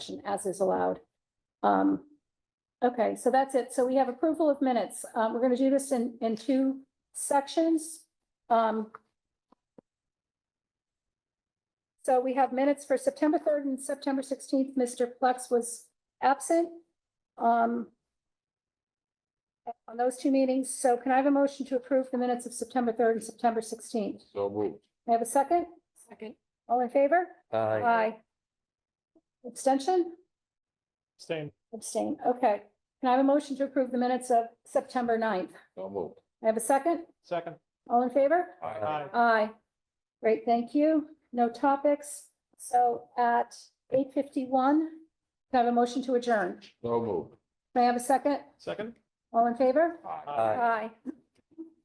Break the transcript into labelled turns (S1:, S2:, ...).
S1: action as is allowed. Um, okay, so that's it. So we have approval of minutes. Um, we're gonna do this in, in two sections. Um, so we have minutes for September third and September sixteenth. Mr. Plex was absent. Um, on those two meetings. So can I have a motion to approve the minutes of September third and September sixteenth?
S2: So moved.
S1: May I have a second? Second. All in favor? Aye. Abstention?
S3: Same.
S1: Abstain. Okay. Can I have a motion to approve the minutes of September 9th?
S2: So moved.
S1: I have a second?
S3: Second.
S1: All in favor?
S3: Aye.
S1: Aye. Great, thank you. No topics. So at eight fifty-one, can I have a motion to adjourn?
S2: So moved.
S1: May I have a second?
S3: Second.
S1: All in favor?
S2: Aye.
S3: Aye.
S1: Aye.